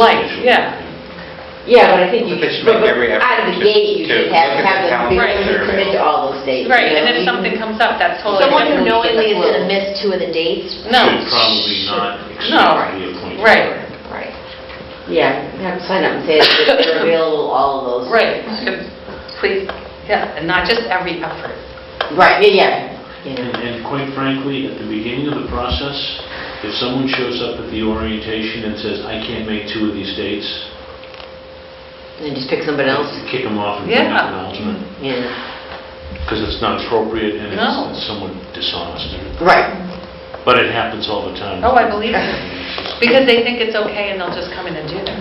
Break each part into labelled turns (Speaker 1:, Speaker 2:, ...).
Speaker 1: lights, yeah.
Speaker 2: Yeah, but I think you,
Speaker 3: They should
Speaker 2: but
Speaker 3: make every effort
Speaker 2: out of the
Speaker 3: to-
Speaker 2: gate, you
Speaker 3: to
Speaker 2: should
Speaker 3: look
Speaker 2: have,
Speaker 3: at the
Speaker 2: have them, be
Speaker 3: calendar
Speaker 2: willing to
Speaker 3: and
Speaker 2: commit to all those dates. you
Speaker 1: Right, and
Speaker 2: know,
Speaker 1: if
Speaker 2: you-
Speaker 1: something comes up, that's totally
Speaker 4: Someone
Speaker 1: different.
Speaker 4: who knowingly is going to miss two of the dates?
Speaker 1: No.
Speaker 5: Should probably not
Speaker 1: No.
Speaker 5: be appointed.
Speaker 1: Right,
Speaker 4: Right.
Speaker 2: Yeah, have to sign up and say that they're available all of those.
Speaker 1: right. Good. Please, yeah, and not just every effort.
Speaker 2: Right, yeah, yeah, you
Speaker 5: And
Speaker 2: know,
Speaker 5: and quite frankly, at the beginning of the process, if someone shows up at the orientation and says, "I can't make two of these dates,"
Speaker 2: and just pick somebody else,
Speaker 5: kick them off and bring
Speaker 1: Yeah.
Speaker 5: up an alternate,
Speaker 2: yeah,
Speaker 5: because it's not appropriate and
Speaker 1: No.
Speaker 5: it's it's somewhat dishonest.
Speaker 2: right,
Speaker 5: But it happens all the time.
Speaker 1: Oh, I believe it. Because they think it's okay and they'll just come in and do that.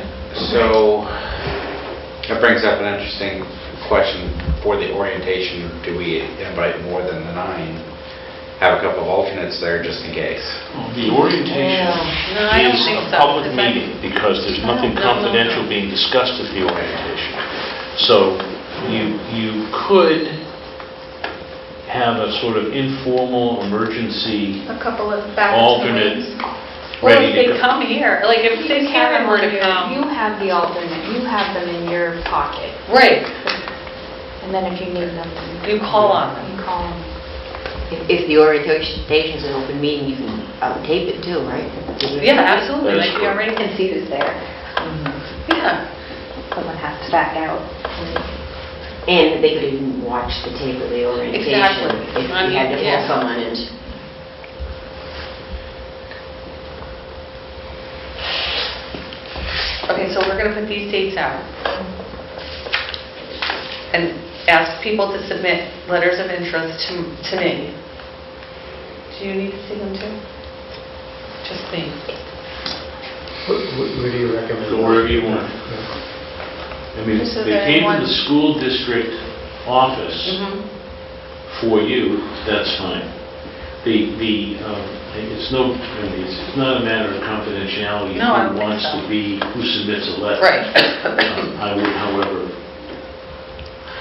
Speaker 3: So, that brings up an interesting question for the orientation. Do we invite more than the nine? Have a couple of alternates there just in case.
Speaker 5: The orientation
Speaker 1: No, I don't
Speaker 5: is
Speaker 1: think
Speaker 5: a
Speaker 1: so,
Speaker 5: public
Speaker 1: is that-
Speaker 5: meeting because there's
Speaker 1: No,
Speaker 5: nothing
Speaker 1: no, no, no.
Speaker 5: confidential being discussed at the orientation. So you, you could have a sort of informal emergency
Speaker 6: a couple of back
Speaker 5: alternate
Speaker 1: Or
Speaker 5: ready
Speaker 1: if
Speaker 5: to
Speaker 1: they
Speaker 5: go.
Speaker 1: come here, like if
Speaker 7: You
Speaker 1: say
Speaker 7: have
Speaker 1: Karen
Speaker 7: them
Speaker 1: were
Speaker 7: on
Speaker 1: to
Speaker 7: your- You
Speaker 1: come.
Speaker 7: have the alternate, you have them in your pocket,
Speaker 1: Right,
Speaker 7: and then if you need them,
Speaker 1: you call on them.
Speaker 7: you call them.
Speaker 2: If- if the orientation's an open meeting, you can um, tape it too, right?
Speaker 1: Yeah, absolutely,
Speaker 5: That is
Speaker 1: like you already,
Speaker 4: And see who's there.
Speaker 1: yeah.
Speaker 4: Someone has to back out.
Speaker 2: And they could even watch the tape of the orientation.
Speaker 1: Exactly.
Speaker 2: If
Speaker 1: I
Speaker 2: you had
Speaker 1: mean,
Speaker 2: to
Speaker 1: yeah.
Speaker 2: pull someone and,
Speaker 1: Okay, so we're going to put these dates out. And ask people to submit letters of interest to, to me. Do you need to see them too? Just me.
Speaker 8: Wh- wh- Where do you recommend?
Speaker 5: Go wherever you want. I mean,
Speaker 6: So
Speaker 5: they
Speaker 6: then
Speaker 5: came to
Speaker 6: one-
Speaker 5: the school district office
Speaker 1: Mhm.
Speaker 5: for you, that's fine. The, the, um, it's no, I mean, it's it's not a matter of confidentiality.
Speaker 1: No, I don't
Speaker 5: Who
Speaker 1: think
Speaker 5: wants
Speaker 1: so.
Speaker 5: to be, who submits a letter.
Speaker 1: Right.
Speaker 5: Um, I would, however,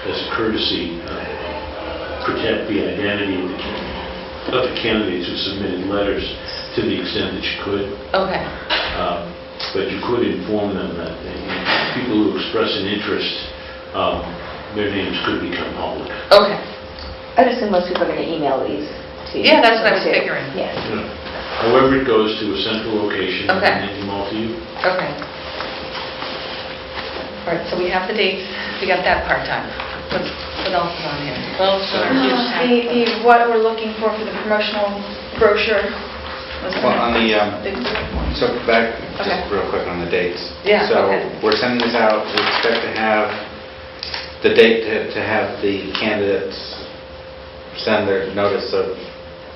Speaker 5: as a courtesy, uh, protect the identity of the can- of the candidates who submitted letters to the extent that you could.
Speaker 1: Okay,
Speaker 5: Um, But you could inform them that uh, you know, people who express an interest, um, their names could become public.
Speaker 1: okay.
Speaker 4: I'd assume most people are going to email these to you.
Speaker 1: Yeah, that's what I was
Speaker 4: too.
Speaker 1: figuring.
Speaker 4: Yeah.
Speaker 5: you know. However, it goes to a central location and
Speaker 1: Okay.
Speaker 5: then you mail to you.
Speaker 1: Okay. All right, so we have the dates, we got that part time. What what else is on here? Well,
Speaker 6: The, the, what we're looking for for the promotional brochure was the
Speaker 3: Well, on the, um,
Speaker 6: one.
Speaker 3: So back,
Speaker 1: Okay.
Speaker 3: just real quick on the dates.
Speaker 1: Yeah,
Speaker 3: So
Speaker 1: okay.
Speaker 3: we're sending this out, we expect to have the date to to have the candidates send their notice of,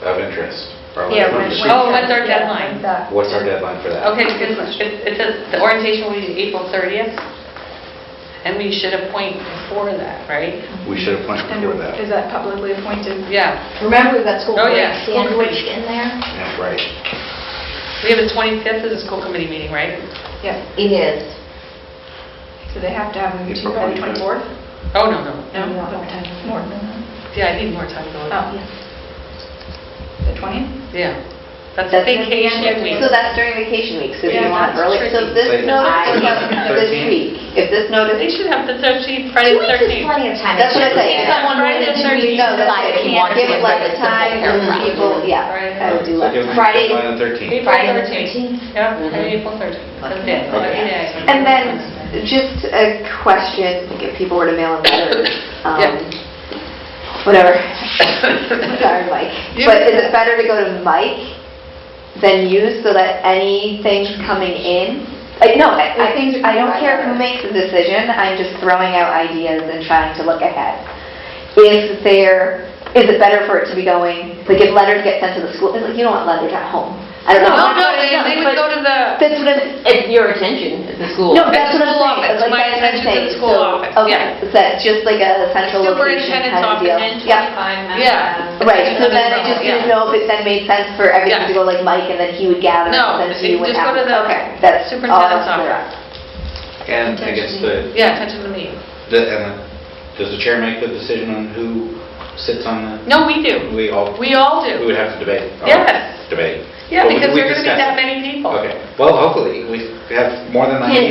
Speaker 3: of interest. or
Speaker 6: Yeah,
Speaker 3: whatever.
Speaker 6: when-
Speaker 5: What's
Speaker 6: when-
Speaker 1: Oh, what's our
Speaker 6: yeah,
Speaker 1: Oh, deadline?
Speaker 6: when's that?
Speaker 3: What's our deadline for that?
Speaker 1: Okay, because it it says the orientation will be April 30th, and we should appoint before that, right?
Speaker 3: We should appoint
Speaker 6: And
Speaker 3: before that.
Speaker 6: Is that publicly appointed?
Speaker 1: Yeah,
Speaker 4: Remember, we've got school
Speaker 1: Oh,
Speaker 4: break
Speaker 1: yeah.
Speaker 4: sandwiched in there?
Speaker 3: Yeah, Right.
Speaker 1: we have the 25th as a school committee meeting, right?
Speaker 6: Yeah,
Speaker 4: It is.
Speaker 6: so they have to have them to
Speaker 3: April
Speaker 6: by the
Speaker 3: 25th.
Speaker 6: 24th?
Speaker 1: Oh, no, no.
Speaker 6: No, more than that.
Speaker 1: Yeah, I need more time to look.
Speaker 6: Oh, the 20th?
Speaker 1: Yeah. That's
Speaker 4: That's
Speaker 1: vacation week.
Speaker 4: So that's during vacation week, so if you
Speaker 6: Yeah,
Speaker 4: want
Speaker 6: that's
Speaker 4: early, so
Speaker 1: tricky.
Speaker 4: this
Speaker 3: Like,
Speaker 4: notice is up this
Speaker 3: 13th?
Speaker 4: week. If this
Speaker 1: They
Speaker 4: notice,
Speaker 1: should have the 13th,
Speaker 4: two
Speaker 1: Friday the
Speaker 4: weeks is
Speaker 1: 13th.
Speaker 4: plenty of time.
Speaker 2: That's what I say.
Speaker 4: If someone more than two weeks no, that's
Speaker 2: Like,
Speaker 4: it.
Speaker 2: if you want to
Speaker 4: Give it
Speaker 2: look
Speaker 4: like
Speaker 2: at
Speaker 4: the
Speaker 2: the whole
Speaker 4: time,
Speaker 2: paragraph.
Speaker 4: people, yeah, I would do
Speaker 3: So
Speaker 4: like
Speaker 3: give them
Speaker 4: Friday,
Speaker 3: deadline on the 13th.
Speaker 1: April
Speaker 4: Friday the
Speaker 1: 13th.
Speaker 4: 13th.
Speaker 1: Yeah, Friday,
Speaker 2: Mhm.
Speaker 1: April 13th.
Speaker 2: Like,
Speaker 1: That's it,
Speaker 3: okay.
Speaker 1: every day.
Speaker 4: And then, just a question, like, if people were to mail in letters, um,
Speaker 1: Yeah.
Speaker 4: whatever, sorry, Mike,
Speaker 1: You
Speaker 4: but
Speaker 1: can-
Speaker 4: is it better to go to Mike than you so that anything coming in? Like, no, I I think, I don't care who makes the decision, I'm just throwing out ideas and trying to look ahead. Is there, is it better for it to be going, like, if letters get sent to the school, like, you don't want letters at home. I don't
Speaker 1: No,
Speaker 4: know.
Speaker 1: no, they they would go to the,
Speaker 4: That's what I'm,
Speaker 2: It's your attention at the school.
Speaker 4: no, that's what I'm
Speaker 1: school
Speaker 4: saying.
Speaker 1: office.
Speaker 4: Like,
Speaker 1: My
Speaker 4: that's what I'm
Speaker 1: attention to the
Speaker 4: saying.
Speaker 1: school
Speaker 4: So,
Speaker 1: office, yeah.
Speaker 4: Okay, so that's just like a central location
Speaker 7: Superintendent's
Speaker 4: kind of deal.
Speaker 7: office and
Speaker 4: Yeah,
Speaker 7: 25
Speaker 1: Yeah.
Speaker 7: members.
Speaker 4: right, so
Speaker 1: Superintendent's
Speaker 4: then I just
Speaker 1: office,
Speaker 4: didn't
Speaker 1: yeah.
Speaker 4: know if it then made sense for everything to
Speaker 1: Yeah.
Speaker 4: go like Mike, and then he would gather,
Speaker 1: No,
Speaker 4: and then
Speaker 1: if
Speaker 4: he
Speaker 1: you just
Speaker 4: would
Speaker 1: go
Speaker 4: have...
Speaker 1: to the
Speaker 4: Okay, that's all
Speaker 1: superintendent's
Speaker 4: I'm clear
Speaker 1: office.
Speaker 4: on.
Speaker 3: And I guess the,
Speaker 1: yeah, attention to me.
Speaker 3: the- and the- does the chair make the decision on who sits on
Speaker 1: No, we
Speaker 3: the,
Speaker 1: do.
Speaker 3: we all,
Speaker 1: We all do.
Speaker 3: we would have to debate. all
Speaker 1: Yes.
Speaker 3: Debate.
Speaker 1: Yeah,
Speaker 3: Well, we-
Speaker 1: because
Speaker 3: we
Speaker 1: there are going to be
Speaker 3: discussed
Speaker 1: that
Speaker 3: it.
Speaker 1: many people.
Speaker 3: Okay, well, hopefully, we have more than nine
Speaker 2: Can-